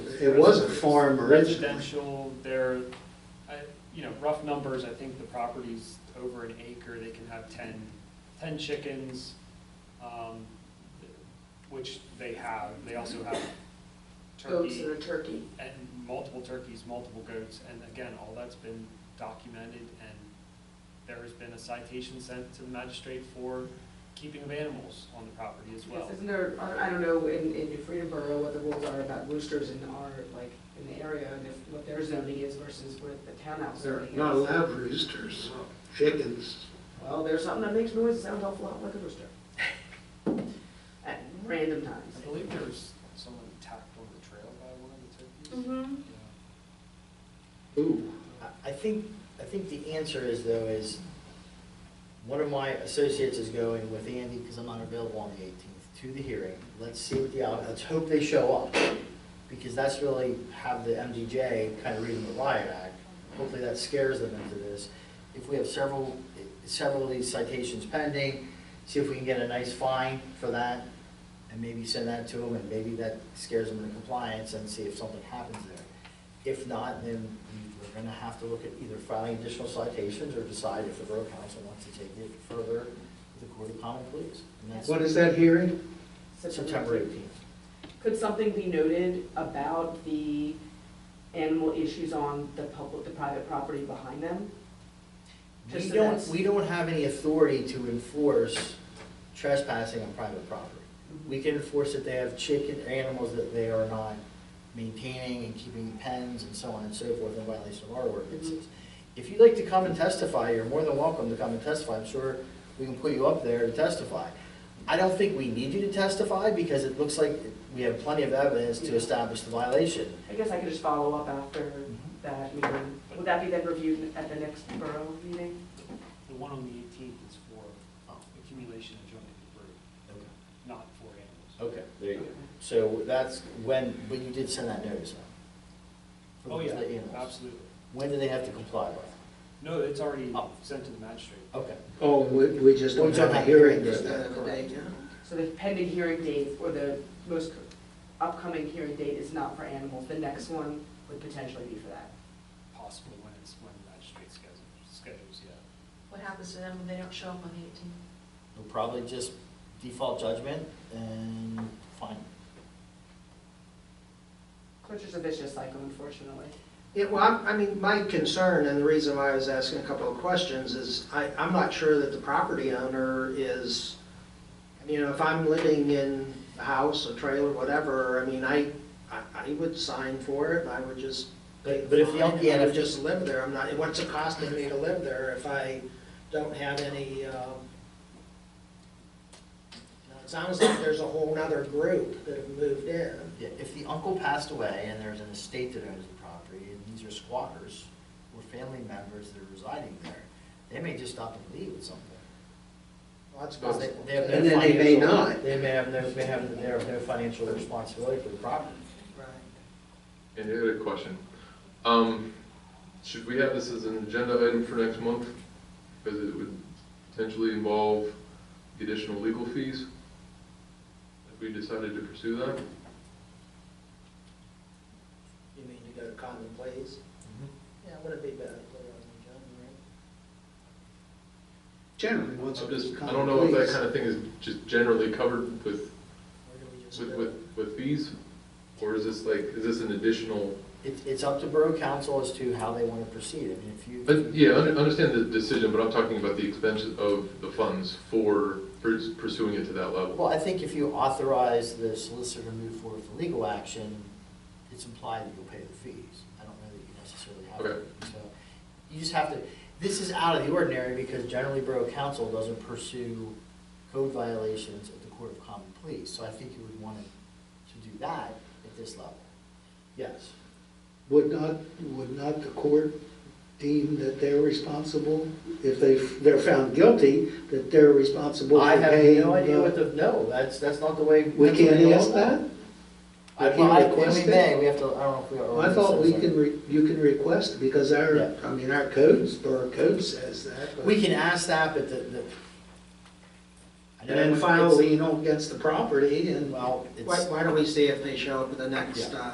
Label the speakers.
Speaker 1: It was a farm originally.
Speaker 2: Residential, there, I, you know, rough numbers, I think the property's over an acre, they can have ten, ten chickens, um, which they have, they also have
Speaker 3: goats
Speaker 2: turkey
Speaker 3: and a turkey.
Speaker 2: and multiple turkeys, multiple goats, and again, all that's been documented, and there has been a citation sent to the magistrate for keeping of animals on the property as well.
Speaker 3: Yes, Isn't there, I- I don't know, in, in New Freedom Borough, what the rules are about roosters in our, like, in the area, and if, what their zoning is versus what the townhouse
Speaker 1: They're
Speaker 3: zoning is.
Speaker 1: not allowed roosters, chickens.
Speaker 3: Well, there's something that makes noise that sounds awful lot like a rooster. At random times.
Speaker 2: I believe there was someone attacked on the trail by one of the
Speaker 3: Mm-hmm.
Speaker 2: turkeys. Yeah.
Speaker 1: Ooh,
Speaker 4: I- I think, I think the answer is though is, one of my associates is going with Andy, because I'm not available on the eighteenth, to the hearing. Let's see what the, out- let's hope they show up, because that's really how the MDJ kind of reading the riot act. Hopefully that scares them into this. If we have several, several of these citations pending, see if we can get a nice fine for that, and maybe send that to them, and maybe that scares them into compliance, and see if something happens there. If not, then we're gonna have to look at either filing additional citations or decide if the borough council wants to take it further to the court of common pleas. And that's
Speaker 1: what is that hearing?
Speaker 4: September eighteenth.
Speaker 3: Could something be noted about the animal issues on the public, the private property behind them? Just
Speaker 4: We
Speaker 3: so
Speaker 4: don't,
Speaker 3: that's-
Speaker 4: we don't have any authority to enforce trespassing on private property. We can enforce that they have chicken, animals that they are not maintaining and keeping in pens and so on and so forth in violation of our ordinances.
Speaker 3: Mm-hmm.
Speaker 4: If you'd like to come and testify, you're more than welcome to come and testify. I'm sure we can put you up there to testify. I don't think we need you to testify because it looks like we have plenty of evidence to establish the violation.
Speaker 3: I guess I could just follow up after
Speaker 1: Mm-hmm.
Speaker 3: that meeting. Would that be then reviewed at the next borough meeting?
Speaker 2: The one on the eighteenth is for uh,
Speaker 4: Oh.
Speaker 2: accumulation of junk debris, not for animals.
Speaker 4: Okay, there you go. So that's when, but you did send that notice out?
Speaker 2: Oh,
Speaker 4: For the
Speaker 2: yeah,
Speaker 4: animals.
Speaker 2: absolutely.
Speaker 4: When do they have to comply with?
Speaker 2: No, it's already
Speaker 4: Oh.
Speaker 2: sent to the magistrate.
Speaker 4: Okay.
Speaker 1: Oh, we, we just don't have a hearing for that.
Speaker 3: So the pending hearing date, or the most upcoming hearing date is not for animals, the next one would potentially be for that.
Speaker 2: possible when it's, when the magistrate schedules, schedules, yeah.
Speaker 5: What happens to them when they don't show up on the eighteenth?
Speaker 4: They'll probably just default judgment and fine.
Speaker 3: Which is a vicious cycle, unfortunately.
Speaker 1: Yeah, well, I'm- I mean, my concern, and the reason why I was asking a couple of questions, is I, I'm not sure that the property owner is, you know, if I'm living in a house, a trailer, whatever, I mean, I, I I would sign for it, and I would just pay
Speaker 4: But
Speaker 1: the
Speaker 4: if the-
Speaker 1: fine, and I
Speaker 4: yeah,
Speaker 1: would
Speaker 4: if-
Speaker 1: just live there, I'm not, what's it costing me to live there if I don't have any, um, you know, it sounds like there's a whole nother group that have moved in.
Speaker 4: Yeah, if the uncle passed away and there's an estate that owns the property, and these are squatters or family members that are residing there, they may just stop and leave at some point.
Speaker 1: Well, That's
Speaker 4: Because they-
Speaker 1: possible.
Speaker 4: they have no
Speaker 1: And then they may
Speaker 4: financial-
Speaker 1: not.
Speaker 4: They may have, no- may have, they have no financial responsibility for the property.
Speaker 1: Right.
Speaker 6: And I had a question. Um, should we have this as an agenda item for next month? Because it would potentially involve the additional legal fees if we decided to pursue that.
Speaker 1: You mean to go to common pleas? Yeah, would it be better to put it on the agenda, right? Generally,
Speaker 6: I'm
Speaker 1: once it goes to
Speaker 6: just, I
Speaker 1: common pleas.
Speaker 6: don't know if that kind of thing is just generally covered with,
Speaker 1: or do we just
Speaker 6: with,
Speaker 1: do
Speaker 6: with,
Speaker 1: it?
Speaker 6: with fees? Or is this like, is this an additional,
Speaker 4: It's, it's up to borough council as to how they want to proceed. I mean, if you.
Speaker 6: but, yeah, I under- understand the decision, but I'm talking about the expense of the funds for purs- pursuing it to that level.
Speaker 4: Well, I think if you authorize the solicitor to move forward with legal action, it's implied that you'll pay the fees. I don't know that you necessarily have
Speaker 6: Okay.
Speaker 4: to. So you just have to, this is out of the ordinary because generally borough council doesn't pursue code violations at the court of common pleas. So I think you would want to do that at this level. Yes.
Speaker 7: Would not, would not the court deem that they're responsible, if they, they're found guilty, that they're responsible
Speaker 4: I
Speaker 7: for
Speaker 4: have
Speaker 7: paying?
Speaker 4: no idea what the, no, that's, that's not the way.
Speaker 7: uh, We
Speaker 4: that's the way
Speaker 7: can't
Speaker 4: the law-
Speaker 7: ask that?
Speaker 4: I,
Speaker 7: We can't
Speaker 4: I,
Speaker 7: request
Speaker 4: we
Speaker 7: it?
Speaker 4: may, we have to, I don't know if we are.
Speaker 7: Well, I thought we
Speaker 4: citizens.
Speaker 7: can, re- you can request, because
Speaker 4: Yeah.
Speaker 7: our, I mean, our codes, our code says that. but-
Speaker 4: We can ask that, but the, the. I
Speaker 7: And
Speaker 4: know
Speaker 7: then file a
Speaker 4: it's-
Speaker 7: lien against the property and.
Speaker 4: Well, it's.
Speaker 1: Why, why don't we see if they show up at the next,
Speaker 4: Yeah.
Speaker 1: uh,